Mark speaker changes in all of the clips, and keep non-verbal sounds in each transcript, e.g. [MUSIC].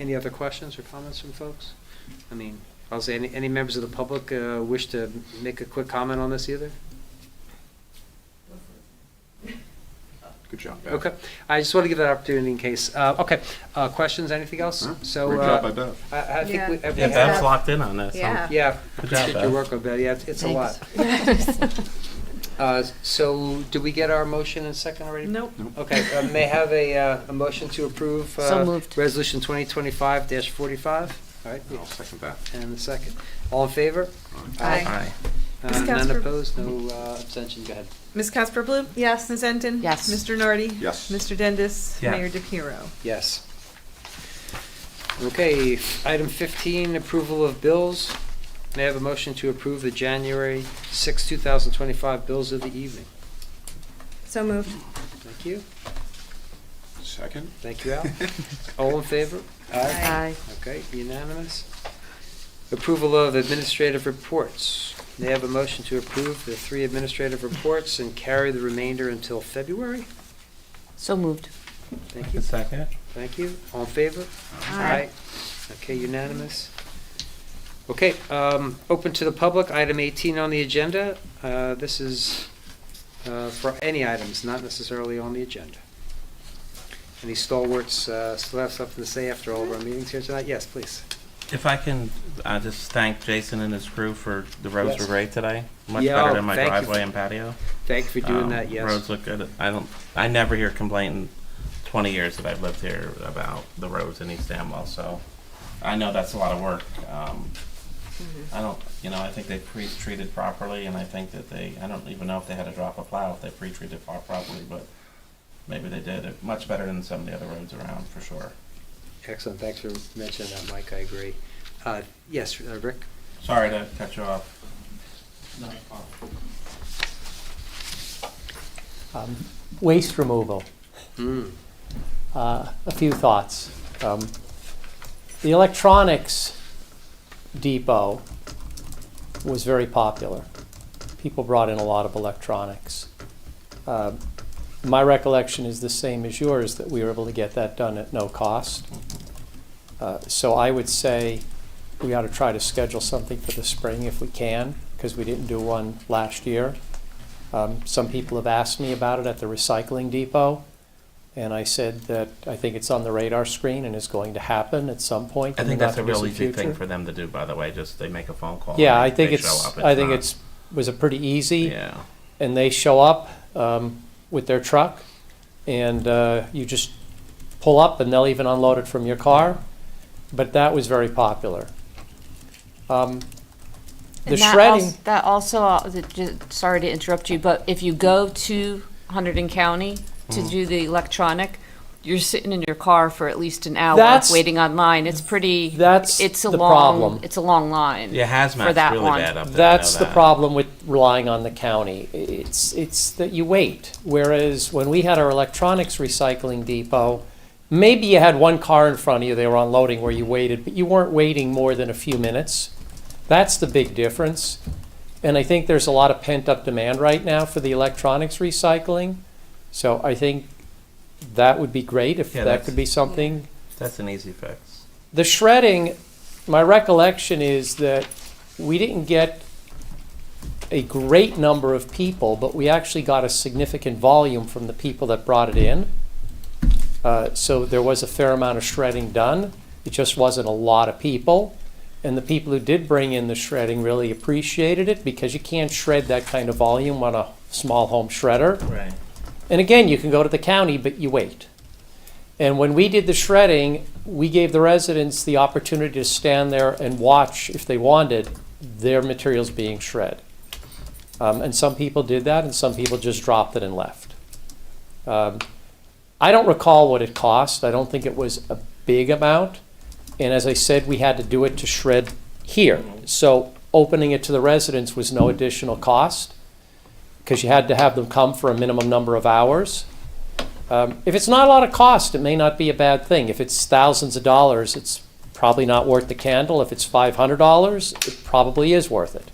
Speaker 1: Any other questions or comments from folks? I mean, I'll say, any, any members of the public uh, wish to make a quick comment on this either?
Speaker 2: Good job, Beth.
Speaker 1: Okay, I just want to give that opportunity in case, uh, okay, uh, questions, anything else?
Speaker 2: Huh?
Speaker 1: So.
Speaker 2: Great
Speaker 1: uh,
Speaker 2: job by Beth.
Speaker 1: I, I think we.
Speaker 3: Yeah,
Speaker 1: everything-
Speaker 3: Ben's locked in on this. huh?
Speaker 4: Yeah.
Speaker 1: Yeah,
Speaker 3: Good job,
Speaker 1: appreciate your
Speaker 3: Beth.
Speaker 1: work on that, yeah, it's- it's a lot.
Speaker 5: [LAUGHS]
Speaker 1: Uh, So, did we get our motion and second already?
Speaker 5: Nope.
Speaker 2: Nope.
Speaker 1: Okay, uh, may I have a, uh, a motion to approve? uh,
Speaker 4: So moved.
Speaker 1: Resolution 2025-45, all right,
Speaker 2: I'll second that.
Speaker 1: and the second. All in favor?
Speaker 4: Aye.
Speaker 3: Aye.
Speaker 1: Uh,
Speaker 5: Ms.
Speaker 1: None
Speaker 5: Casper?
Speaker 1: opposed, no uh, abstention, go ahead.
Speaker 5: Ms. Casper Bloom?
Speaker 4: Yes.
Speaker 5: Ms. Enton?
Speaker 4: Yes.
Speaker 5: Mr. Nardi?
Speaker 2: Yes.
Speaker 5: Mr. Dendis?
Speaker 3: Yes.
Speaker 5: Mayor DePiero?
Speaker 1: Yes. Okay, f- item 15, approval of bills. May I have a motion to approve the January 6, 2025 bills of the evening?
Speaker 4: So moved.
Speaker 1: Thank you,
Speaker 2: Second?
Speaker 1: thank you, Al. All in favor?
Speaker 4: Aye.
Speaker 1: Okay, unanimous. Approval of administrative reports. May I have a motion to approve the three administrative reports and carry the remainder until February?
Speaker 4: So moved.
Speaker 1: Thank you,
Speaker 3: Second?
Speaker 1: thank you. All in favor? Okay, unanimous. Okay, um, open to the public, item 18 on the agenda. Uh, This is uh, for any items, not necessarily on the agenda. Any stalwarts uh, still have something to say after all of our meetings here tonight? Yes, please.
Speaker 3: If I can, I just thank Jason and his crew for the roads
Speaker 1: Yes.
Speaker 3: were great today. Much
Speaker 1: Yeah, oh,
Speaker 3: better than my
Speaker 1: thank you.
Speaker 3: driveway and patio.
Speaker 1: Thank you for doing
Speaker 3: Um,
Speaker 1: that, yes.
Speaker 3: Roads look good. I don't, I never hear complaint in twenty years that I've lived here about the roads in East Amwell, so I know that's a lot of work. Um,
Speaker 1: Mm-hmm.
Speaker 3: I don't, you know, I think they pre-treated properly and I think that they, I don't even know if they had to drop a plow if they pre-treated pro- properly, but maybe they did. It- Much better than some of the other roads around, for sure.
Speaker 1: Excellent, thanks for mentioning that, Mike, I agree. Uh, Yes, uh, Rick?
Speaker 3: Sorry to cut you off.
Speaker 6: Um, Waste removal,
Speaker 1: Mm,
Speaker 6: uh, a few thoughts. Um, The electronics depot was very popular. People brought in a lot of electronics. Um, My recollection is the same as yours, that we were able to get that done at no cost. Uh, So I would say we ought to try to schedule something for the spring if we can, because we didn't do one last year. Um, Some people have asked me about it at the recycling depot, and I said that I think it's on the radar screen and is going to happen at some point.
Speaker 3: I
Speaker 6: in the
Speaker 3: think that's a real
Speaker 6: not-too-distant
Speaker 3: easy thing
Speaker 6: future.
Speaker 3: for them to do, by the way, just they make a phone call.
Speaker 6: Yeah,
Speaker 3: and
Speaker 6: I think
Speaker 3: they show
Speaker 6: it's,
Speaker 3: up.
Speaker 6: I think
Speaker 3: not-
Speaker 6: it's, was a pretty easy,
Speaker 3: Yeah,
Speaker 6: and they show up um, with their truck, and uh, you just pull up, and they'll even unload it from your car, but that was very popular. Um, The
Speaker 4: And that
Speaker 6: shredding,
Speaker 4: als- That also, uh, the- ju- sorry to interrupt you, but if you go to Hunterdon County to
Speaker 6: Mm.
Speaker 4: do the electronic, you're sitting in your car for at least an hour
Speaker 6: That's-
Speaker 4: waiting online. It's pretty,
Speaker 6: that's
Speaker 4: it's a
Speaker 6: the
Speaker 4: long,
Speaker 6: problem.
Speaker 4: it's a long line.
Speaker 3: yeah, hazmat's
Speaker 4: that
Speaker 3: really
Speaker 4: one.
Speaker 3: bad up there. I know
Speaker 6: That's the
Speaker 3: that.
Speaker 6: problem with relying on the county. It's, it's that you wait. Whereas when we had our electronics recycling depot, maybe you had one car in front of you, they were unloading where you waited, but you weren't waiting more than a few minutes. That's the big difference. And I think there's a lot of pent up demand right now for the electronics recycling. So I think that would be great if
Speaker 3: Yeah,
Speaker 6: that
Speaker 3: that's-
Speaker 6: could be something.
Speaker 3: That's an easy fix.
Speaker 6: The shredding, my recollection is that we didn't get a great number of people, but we actually got a significant volume from the people that brought it in. Uh, so there was a fair amount of shredding done. It just wasn't a lot of people. And the people who did bring in the shredding really appreciated it because you can't shred that kind of volume on a small home shredder.
Speaker 3: Right.
Speaker 6: And again, you can go to the county, but you wait. And when we did the shredding, we gave the residents the opportunity to stand there and watch, if they wanted, their materials being shred. Um, and some people did that, and some people just dropped it and left. Um, I don't recall what it cost. I don't think it was a big amount. And as I said, we had to do it to shred here. So opening it to the residents was no additional cost because you had to have them come for a minimum number of hours. Um, if it's not a lot of cost, it may not be a bad thing. If it's thousands of dollars, it's probably not worth the candle. If it's five hundred dollars, it probably is worth it.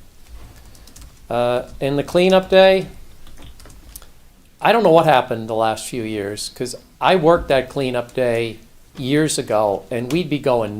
Speaker 6: Uh, and the cleanup day, I don't know what happened the last few years because I worked that cleanup day years ago, and we'd be going